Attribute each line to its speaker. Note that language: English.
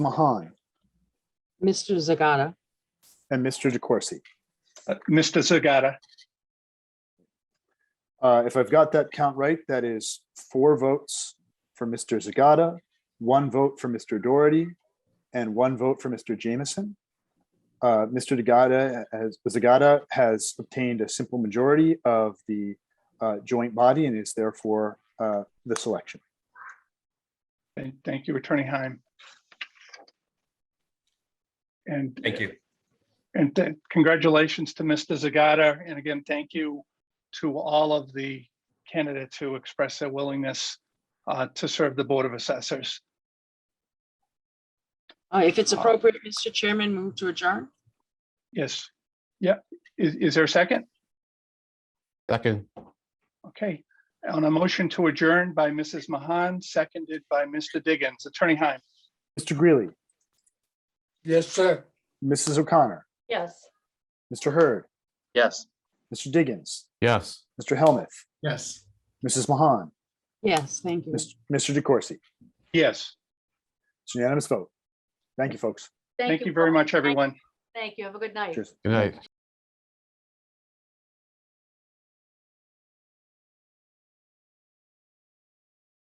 Speaker 1: Mahan
Speaker 2: Mr. Zagata,
Speaker 1: and Mr. DeCoursey.
Speaker 3: Uh, Mr. Zagata,
Speaker 1: Uh, If I've got that count right, that is four votes for Mr. Zagata, one vote for Mr. Doherty, and one vote for Mr. Jameson. Uh, Mr. Zagata has, Zagata has obtained a simple majority of the uh, joint body and is therefore uh, the selection.
Speaker 3: and thank you, Attorney Heim. And.
Speaker 4: Thank you.
Speaker 3: And th- congratulations to Mr. Zagata. And again, thank you to all of the candidates who expressed their willingness uh, to serve the Board of Assessors.
Speaker 2: Uh, if it's appropriate, Mr. Chairman, move to adjourn.
Speaker 3: Yes. Yeah. Is, is there a second?
Speaker 5: Second,
Speaker 3: Okay. On a motion to adjourn by Mrs. Mahan, seconded by Mr. Diggins. Attorney Heim,
Speaker 1: Mr. Greeley,
Speaker 6: Yes, sir.
Speaker 1: Mrs. O'Connor,
Speaker 7: Yes.
Speaker 1: Mr. Hurd,
Speaker 8: Yes.
Speaker 1: Mr. Diggins,
Speaker 5: yes.
Speaker 1: Mr. Helmuth,
Speaker 6: Yes.
Speaker 1: Mrs. Mahan,
Speaker 2: Yes, thank you.
Speaker 1: Mr. DeCoursey.
Speaker 3: yes.
Speaker 1: It's a unanimous vote. Thank you, folks.
Speaker 3: Thank you very
Speaker 7: Paul.
Speaker 3: much,
Speaker 7: Thank-
Speaker 3: everyone.
Speaker 7: Thank you. Have a good night.
Speaker 1: Cheers.
Speaker 5: Good night.